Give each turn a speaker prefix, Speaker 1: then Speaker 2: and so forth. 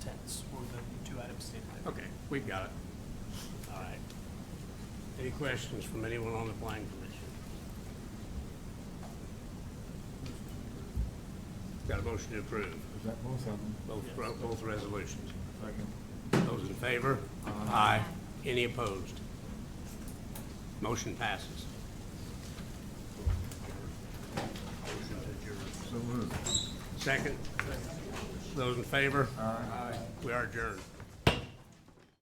Speaker 1: We've got it. All right. Any questions from anyone on the planning commission? Got a motion to approve,
Speaker 2: Is that both of them?
Speaker 1: both, both resolutions.
Speaker 2: Second.
Speaker 1: Those in favor? Aye. Any opposed? Motion passes. Motion to adjourn.
Speaker 2: So moved.
Speaker 1: Second? Those in favor? Aye. We are adjourned.